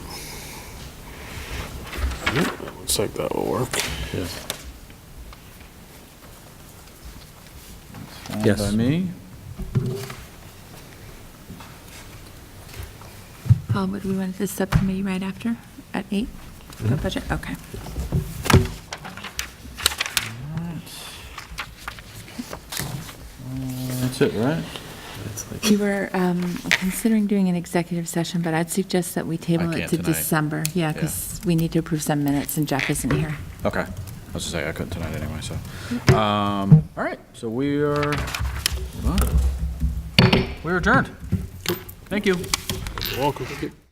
Looks like that will work. Signed Yes. By me? Paul, would we want this subcommittee right after, at 8? The budget, okay. That's it, right? We were um, considering doing an executive session, but I'd suggest that we table it can't to tonight. December. Yeah, Yeah. because we need to approve some minutes, and Jeff isn't here. Okay. I was just saying, I couldn't tonight anyway, so. Um, all right, so we are, hold on. We're adjourned. Thank you. Welcome.